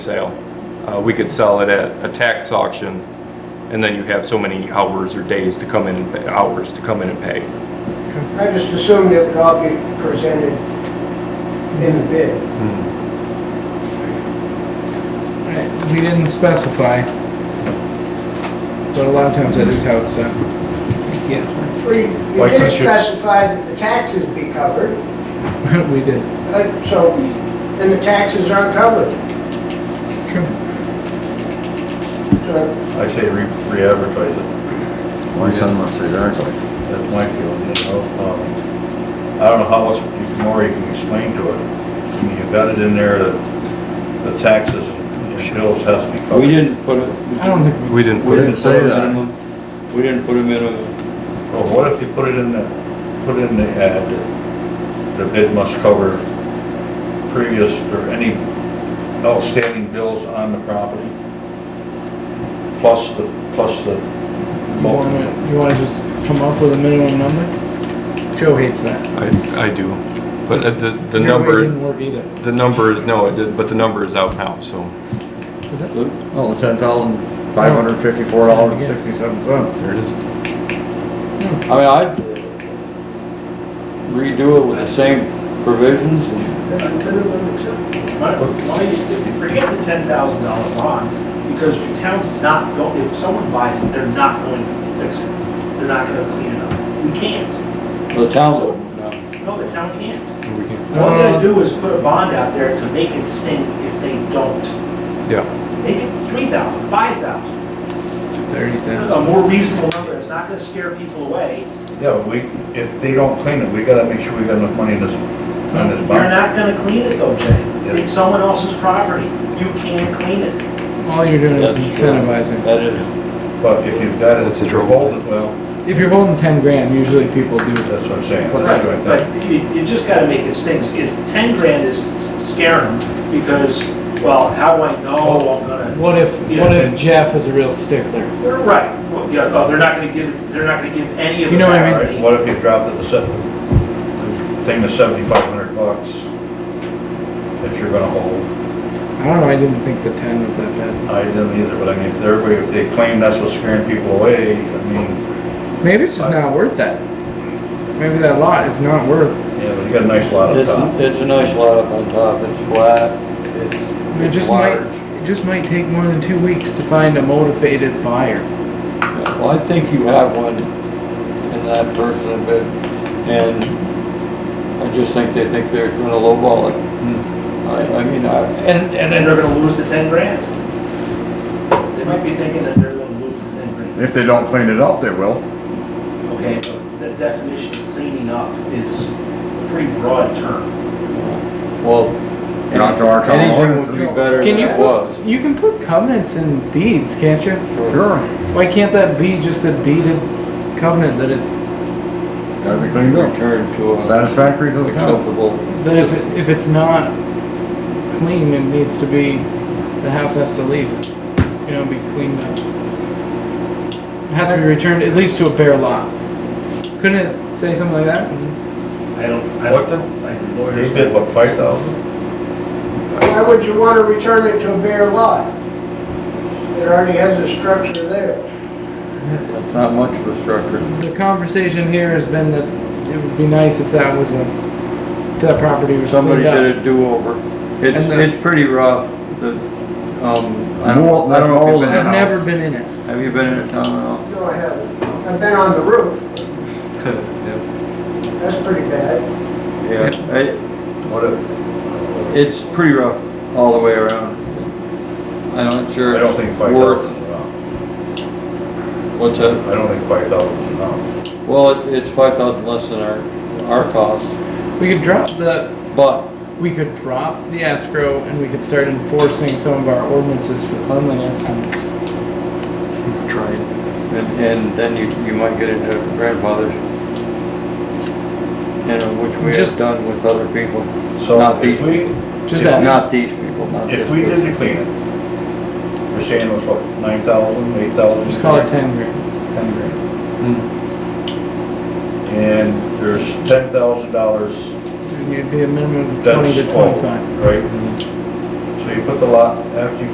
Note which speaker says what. Speaker 1: sale. Uh, We could sell it at a tax auction, and then you have so many hours or days to come in, and pay- hours to come in and pay.
Speaker 2: I just assumed it would all be presented in the bid.
Speaker 1: Hmm.
Speaker 3: We didn't specify, but a lot of times that is how it's done. Yeah,
Speaker 2: Well, you- You
Speaker 4: Why
Speaker 2: did
Speaker 4: couldn't you-
Speaker 2: specify that the taxes be covered,
Speaker 3: we did.
Speaker 2: uh, so then the taxes aren't covered.
Speaker 3: True.
Speaker 2: So
Speaker 4: I say re- re-advertise it,
Speaker 5: My son wants to learn.
Speaker 4: that's my feeling, you know? Um, I don't know how much more you can explain to it. I mean, you've got it in there that the taxes and bills has to be covered.
Speaker 6: We didn't put a.
Speaker 3: I don't think,
Speaker 1: We didn't
Speaker 5: We
Speaker 1: put
Speaker 5: didn't
Speaker 1: it,
Speaker 5: say that.
Speaker 6: minimum. We didn't put a minimum.
Speaker 4: Well, what if you put it in the, put in the ad, that the bid must cover previous or any outstanding bills on the property? Plus the, plus the.
Speaker 3: you wanna, you wanna just come up with a minimum number? Joe hates that.
Speaker 1: I, I do. But uh, the, the
Speaker 3: Your way
Speaker 1: number,
Speaker 3: Didn't work either.
Speaker 1: the number is, no, it did, but the number is out now, so.
Speaker 3: Is it?
Speaker 5: Oh, ten thousand five hundred fifty-four dollars and sixty-seven cents.
Speaker 1: There it is.
Speaker 6: I mean, I'd redo it with the same provisions and
Speaker 7: Why why don't you forget the ten thousand dollar bond, because your town's not going, if someone buys it, they're not going to fix it. They're not gonna clean it up. We can't.
Speaker 6: the town would, no.
Speaker 7: No, the town can't.
Speaker 1: We can-
Speaker 7: All we gotta do is put a bond out there to make it stink if they don't.
Speaker 1: Yeah,
Speaker 7: Make it three thousand, five thousand,
Speaker 3: Thirty thousand.
Speaker 7: a more reasonable number. It's not gonna scare people away.
Speaker 4: Yeah, but we, if they don't clean it, we gotta make sure we got enough money in this, on this
Speaker 7: You're
Speaker 4: bond.
Speaker 7: not gonna clean it though,
Speaker 4: Yeah.
Speaker 7: Jay. It's someone else's property. You can clean it.
Speaker 3: All you're doing is
Speaker 6: That's true.
Speaker 3: incentivizing.
Speaker 6: That is,
Speaker 4: But if you've got it,
Speaker 1: That's the
Speaker 4: if you're
Speaker 1: trouble.
Speaker 4: holding, well,
Speaker 3: If you're holding ten grand, usually people do.
Speaker 4: that's what I'm saying.
Speaker 3: Well,
Speaker 4: That's
Speaker 7: Right,
Speaker 4: what I think.
Speaker 7: but you, you just gotta make it stink. If ten grand is scaring them, because, well, how do I know I'm gonna,
Speaker 3: What if,
Speaker 7: Yeah,
Speaker 3: what if Jeff is a real stickler?
Speaker 7: They're right, well, yeah, oh, they're not gonna give, they're not gonna give any of
Speaker 3: You
Speaker 7: it
Speaker 3: know what I
Speaker 7: back.
Speaker 3: mean?
Speaker 4: All right, What if you dropped it to set, the thing to seventy-five hundred bucks that you're gonna hold?
Speaker 3: I don't know, I didn't think the ten was that bad.
Speaker 4: I didn't either, but I mean, if they're, if they claim that's what's scaring people away, I mean,
Speaker 3: Maybe it's just not worth that. Maybe that lot is not worth,
Speaker 4: yeah, but you got a nice lot of
Speaker 6: it's,
Speaker 4: top.
Speaker 6: it's a nice lot up on top, it's flat, it's,
Speaker 3: it
Speaker 6: it's
Speaker 3: just might,
Speaker 6: large.
Speaker 3: it just might take more than two weeks to find a motivated buyer.
Speaker 6: Well, I think you have one in that person, but, and I just think they think they're gonna lowball it.
Speaker 5: Hmm.
Speaker 6: I, I mean, I,
Speaker 7: And, and then they're gonna lose the ten grand. They might be thinking that they're gonna lose the ten grand,
Speaker 5: If they don't clean it up, they will.
Speaker 7: okay, but the definition of cleaning up is a pretty broad term.
Speaker 6: well.
Speaker 5: Not to our town
Speaker 6: Anything would
Speaker 5: ordinances.
Speaker 6: be better
Speaker 3: Can
Speaker 6: than
Speaker 3: you
Speaker 6: it was.
Speaker 3: put, you can put covenants in deeds, can't you?
Speaker 5: Sure,
Speaker 3: Why can't that be just a deeded covenant that it,
Speaker 5: gotta be cleaned up.
Speaker 6: Return to a
Speaker 5: Satisfactory to the town.
Speaker 6: acceptable.
Speaker 3: that if, it- if it's not clean, it needs to be, the house has to leave, you know, be cleaned up. It has to be returned at least to a bare lot. Couldn't it say something like that?
Speaker 7: I don't, I
Speaker 4: What the-
Speaker 7: don't, I do
Speaker 4: They
Speaker 7: lawyers.
Speaker 4: bid, what, five thousand?
Speaker 2: Why would you want to return it to a bare lot? It already has a structure there.
Speaker 6: That's not much of a structure.
Speaker 3: The conversation here has been that it would be nice if that was a, if that property was
Speaker 6: Somebody
Speaker 3: cleaned up.
Speaker 6: did a do-over. It's,
Speaker 3: And the-
Speaker 6: it's pretty rough, the, um, I don't,
Speaker 5: Mold-
Speaker 6: I don't know if you've
Speaker 5: mold in
Speaker 6: been
Speaker 3: I've
Speaker 5: the
Speaker 6: in a
Speaker 5: house.
Speaker 3: never been in it.
Speaker 6: Have you been in a town at all?
Speaker 2: No, I haven't. I've been on the roof.
Speaker 1: Yeah.
Speaker 2: That's pretty bad.
Speaker 6: Yeah, it,
Speaker 4: What if,
Speaker 6: it's pretty rough all the way around. I'm not
Speaker 4: I
Speaker 6: sure
Speaker 4: don't think
Speaker 6: it's
Speaker 4: five thousand
Speaker 6: worth,
Speaker 4: is enough.
Speaker 6: what's that?
Speaker 4: I don't think five thousand is enough.
Speaker 6: Well, it- it's five thousand less than our, our cost,
Speaker 3: We could drop the
Speaker 6: but
Speaker 3: we could drop the escrow and we could start enforcing some of our ordinances for cleanliness and. Try it.
Speaker 6: And, and then you, you might get into grandfathers. You know, which we have
Speaker 3: Just-
Speaker 6: done with other people,
Speaker 4: So
Speaker 6: Not
Speaker 4: if
Speaker 6: the-
Speaker 4: we,
Speaker 3: Just
Speaker 6: If
Speaker 3: ask.
Speaker 6: not these people, not this
Speaker 4: if we
Speaker 6: person.
Speaker 4: did the cleaning, we're saying it was what, nine thousand, eight thousand?
Speaker 3: Just call it ten grand.
Speaker 4: Ten grand. And there's ten thousand dollars,
Speaker 3: And you'd be a minimum of
Speaker 4: that's
Speaker 3: twenty to
Speaker 4: all,
Speaker 3: twenty-five.
Speaker 4: right? So you you put the lot, after you